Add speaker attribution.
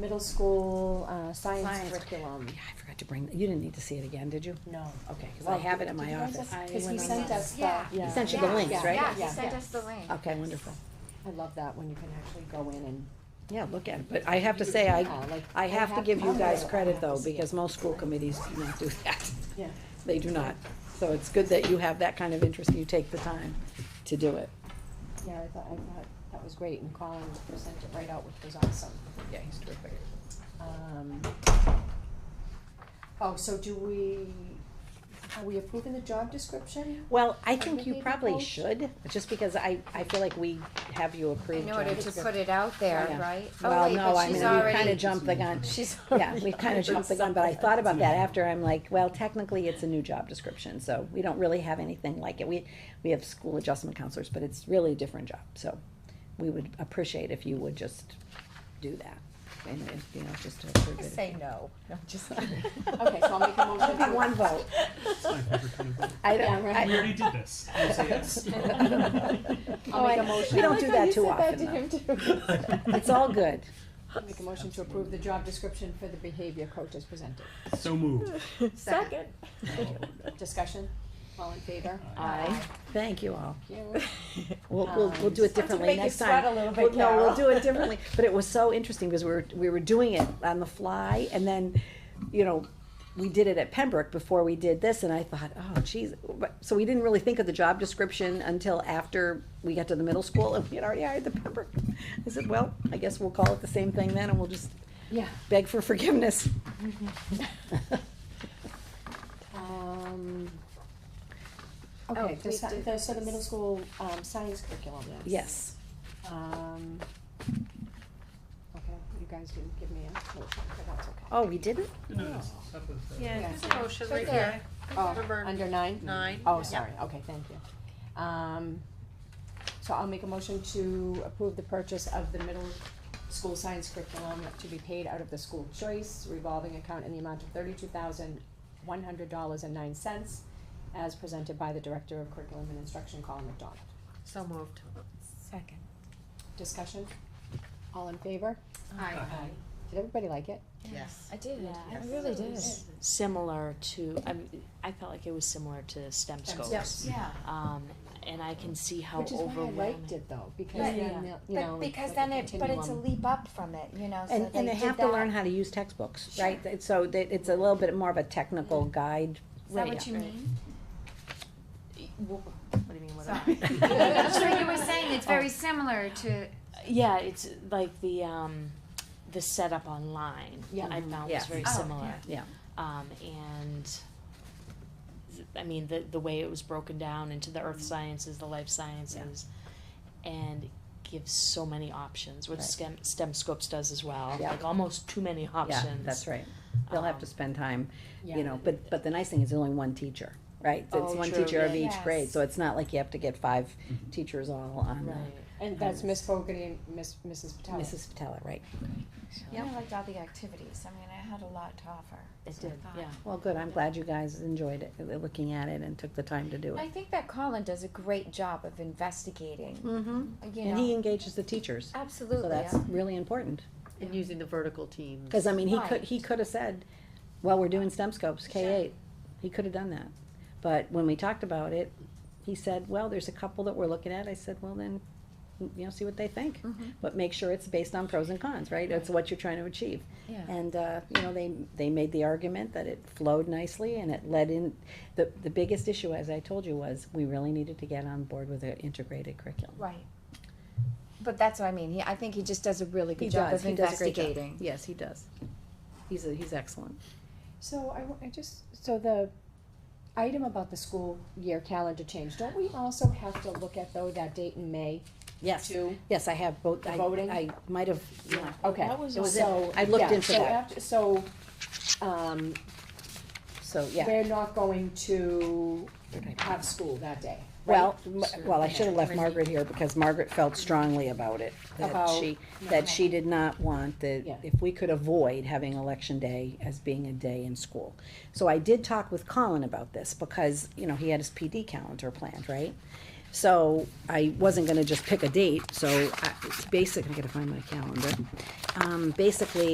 Speaker 1: middle school, uh, science
Speaker 2: Science.
Speaker 1: curriculum.
Speaker 2: Yeah, I forgot to bring, you didn't need to see it again, did you?
Speaker 1: No.
Speaker 2: Okay, because I
Speaker 1: Well,
Speaker 2: have it in my
Speaker 1: did you guys
Speaker 2: office.
Speaker 1: have-
Speaker 3: I
Speaker 1: Cause he
Speaker 3: went on
Speaker 1: sent
Speaker 3: that.
Speaker 1: us the,
Speaker 3: Yeah.
Speaker 1: yeah.
Speaker 2: sent you the
Speaker 1: Yeah.
Speaker 2: links,
Speaker 1: Yeah.
Speaker 2: right?
Speaker 3: Yeah, he
Speaker 1: Yeah.
Speaker 3: sent us the link.
Speaker 2: Okay, wonderful.
Speaker 1: I love that when you can actually go in and.
Speaker 2: Yeah, look at it, but I have to say, I,
Speaker 1: Yeah, like,
Speaker 2: I have to give you
Speaker 1: I'm
Speaker 2: guys
Speaker 1: there, I
Speaker 2: credit
Speaker 1: have to
Speaker 2: though,
Speaker 1: see it.
Speaker 2: because most school committees do not do that.
Speaker 1: Yeah.
Speaker 2: They do not. So it's good that you have that kind of interest and you take the time to do it.
Speaker 1: Yeah, I thought, I thought that was great and Colin sent it right out, which was awesome.
Speaker 2: Yeah, he's terrific.
Speaker 1: Um, Oh, so do we, are we approving the job description?
Speaker 2: Well, I
Speaker 1: we
Speaker 2: think you
Speaker 1: being
Speaker 2: probably
Speaker 1: bold?
Speaker 2: should, just because I, I feel like we have you approved.
Speaker 3: In order
Speaker 2: John.
Speaker 3: to put it out there,
Speaker 2: Yeah.
Speaker 3: right? Oh,
Speaker 2: Well,
Speaker 3: wait,
Speaker 2: no,
Speaker 3: but
Speaker 2: I mean,
Speaker 3: she's
Speaker 2: we
Speaker 3: already-
Speaker 2: kinda jumped the gun.
Speaker 1: She's.
Speaker 2: Yeah, we kind of jumped the gun, but I thought about that after, I'm like, well, technically, it's a new job description, so we don't really have anything like it. We, we have school adjustment counselors, but it's really a different job, so we would appreciate if you would just do that. And, and, you know, just to approve it.
Speaker 3: Just say no. No, I'm just kidding.
Speaker 1: Okay, so I'll make a motion.
Speaker 2: It'll be one vote.
Speaker 4: My favorite kind of vote.
Speaker 2: I
Speaker 1: Yeah,
Speaker 2: don't,
Speaker 1: right.
Speaker 2: I,
Speaker 4: We already did this. Yes, yes.
Speaker 1: I'll
Speaker 3: Oh,
Speaker 1: make a motion.
Speaker 2: we don't do that too often, though. It's all good.
Speaker 1: I'll Make a motion to approve the job description for the behavior coach as presented.
Speaker 4: So moved.
Speaker 2: Oh,
Speaker 3: Second.
Speaker 1: Discussion, all in favor?
Speaker 4: Aye.
Speaker 2: Thank you all.
Speaker 1: Thank you.
Speaker 2: We'll, we'll, we'll do
Speaker 1: Um,
Speaker 2: it differently next time. Well, No, we'll do it differently, but it was so interesting because we were, we were doing it on the fly and then, you know, we did it at Pembroke before we did this and I thought, oh geez. But- So we didn't really think of the job description until after we got to the middle school and we had already hired the Pembroke. I said, well, I guess we'll call it the same thing then and we'll just
Speaker 1: Yeah.
Speaker 2: beg for forgiveness.
Speaker 1: Um,
Speaker 3: Oh,
Speaker 1: Okay,
Speaker 3: we
Speaker 1: the sci-
Speaker 3: did
Speaker 1: the- so the
Speaker 3: this.
Speaker 1: middle school, um, science curriculum.
Speaker 2: Yes.
Speaker 1: Um, okay, you guys didn't give me a motion, but that's okay.
Speaker 2: Oh, we didn't?
Speaker 4: No, no, it's up with the-
Speaker 5: Yeah,
Speaker 1: Yeah.
Speaker 5: there's a motion
Speaker 3: Right
Speaker 5: right
Speaker 3: there.
Speaker 5: there.
Speaker 1: Oh,
Speaker 5: Number
Speaker 1: under nine?
Speaker 5: Nine.
Speaker 1: Oh,
Speaker 5: Yeah.
Speaker 1: sorry, okay, thank you. Um, so I'll make a motion to approve the purchase of the middle school science curriculum to be paid out of the school choice revolving account in the amount of thirty-two thousand, one hundred dollars and nine cents as presented by the Director of Curriculum and Instruction, Colin McDonald.
Speaker 5: So moved.
Speaker 3: Second.
Speaker 1: Discussion? All in favor?
Speaker 5: Aye.
Speaker 1: Did everybody like it?
Speaker 3: I did.
Speaker 6: Yeah,
Speaker 3: I
Speaker 6: I
Speaker 3: really did.
Speaker 6: similar to, I, mean, I felt like it was similar to STEM
Speaker 1: Stem
Speaker 6: scopes.
Speaker 3: Yeah.
Speaker 6: Um, and I can see how
Speaker 1: Which is why I
Speaker 6: overwhelming.
Speaker 1: liked it though, because
Speaker 3: But-
Speaker 1: then, they'll- you know.
Speaker 3: But because
Speaker 1: like
Speaker 3: then it, but it's a
Speaker 1: continuum.
Speaker 3: leap up from it, you know, so
Speaker 2: And, and
Speaker 3: they
Speaker 2: they
Speaker 3: did
Speaker 2: have to learn
Speaker 3: that.
Speaker 2: how to use textbooks, right? That- So that it's a little bit more of a technical guide.
Speaker 3: Is that
Speaker 2: Right,
Speaker 3: what you mean?
Speaker 6: What do you mean, what do I-
Speaker 3: So you were saying it's very similar to,
Speaker 6: Yeah, it's like the, um, the setup online,
Speaker 1: Yeah.
Speaker 6: I found
Speaker 2: Yes.
Speaker 6: was very
Speaker 3: Oh,
Speaker 6: similar.
Speaker 2: yeah.
Speaker 6: Um, and, I mean, the, the way it was broken down into the
Speaker 1: Mm-hmm.
Speaker 6: earth sciences, the life sciences, and gives so many options, which
Speaker 2: Right.
Speaker 6: STEM, STEM scopes does as well,
Speaker 2: Yeah.
Speaker 6: like almost too many
Speaker 2: Yeah,
Speaker 6: options.
Speaker 2: that's right. They'll have to
Speaker 6: Um,
Speaker 2: spend time,
Speaker 1: Yeah.
Speaker 2: you know, but, but the nice thing is there's only one teacher, right? It's
Speaker 6: Oh,
Speaker 2: one
Speaker 6: true,
Speaker 2: teacher of
Speaker 3: yeah.
Speaker 2: each grade,
Speaker 3: Yes.
Speaker 2: so it's not like you have to get five teachers all on uh,
Speaker 6: Right.
Speaker 1: And that's Miss Fogarty and Miss, Mrs. Patel.
Speaker 2: Mrs. Patella, right?
Speaker 3: I liked all the activities. I mean, I had a lot to offer.
Speaker 6: It did,
Speaker 3: thought.
Speaker 6: yeah.
Speaker 2: Well, good, I'm glad you guys enjoyed it, uh, looking at it and took the time to do
Speaker 3: I
Speaker 2: it.
Speaker 3: think that Colin does a great job of investigating,
Speaker 2: Mm-hmm.
Speaker 3: you
Speaker 2: And he
Speaker 3: know,
Speaker 2: engages the teachers, so
Speaker 3: absolutely.
Speaker 2: that's really important.
Speaker 5: And using the vertical teams.
Speaker 2: Cause I mean, he could,
Speaker 3: Right.
Speaker 2: he could have said, well, we're doing STEM scopes, K eight, he could have done that. But when we talked about it, he said, well, there's a couple that we're looking at, I said, well, then, mm, you know, see what they think.
Speaker 3: Mhm.
Speaker 2: But make sure it's based on pros and cons, Mm-hmm. right, that's what you're trying to achieve.
Speaker 3: Yeah.
Speaker 2: And, uh, you know, they, they made the argument that it flowed nicely and it led in, the, the biggest issue, as I told you, was we really needed to get on board with an integrated curriculum.
Speaker 3: Right. But that's what I mean. He, I think he just does a really good
Speaker 2: He
Speaker 3: job
Speaker 2: does,
Speaker 3: of
Speaker 2: he does a great job.
Speaker 3: investigating.
Speaker 2: Yes, he does. He's, a- he's excellent.
Speaker 1: So I, wa- I just, so the item about the school year calendar change, don't we also have to look at though that date in May
Speaker 2: Yes.
Speaker 1: too?
Speaker 2: Yes, I have both, I,
Speaker 1: Voting?
Speaker 2: I might have, yeah.
Speaker 1: Okay.
Speaker 2: That was It was
Speaker 1: so-
Speaker 2: in- I looked
Speaker 1: yeah,
Speaker 2: into
Speaker 1: so
Speaker 2: that.
Speaker 1: after- So, um,
Speaker 2: so, yeah.
Speaker 1: we're not going to have school that day, right?
Speaker 2: Well, m- well, I should have left Margaret here because Margaret felt strongly about it. That
Speaker 1: About-
Speaker 2: she, that she did not want the,
Speaker 1: Yeah.
Speaker 2: if we could avoid having election day as being a day in school. So I did talk with Colin about this because, you know, he had his PD calendar planned, right? So I wasn't gonna just pick a date, so I, basically, I gotta find my calendar. Um, basically,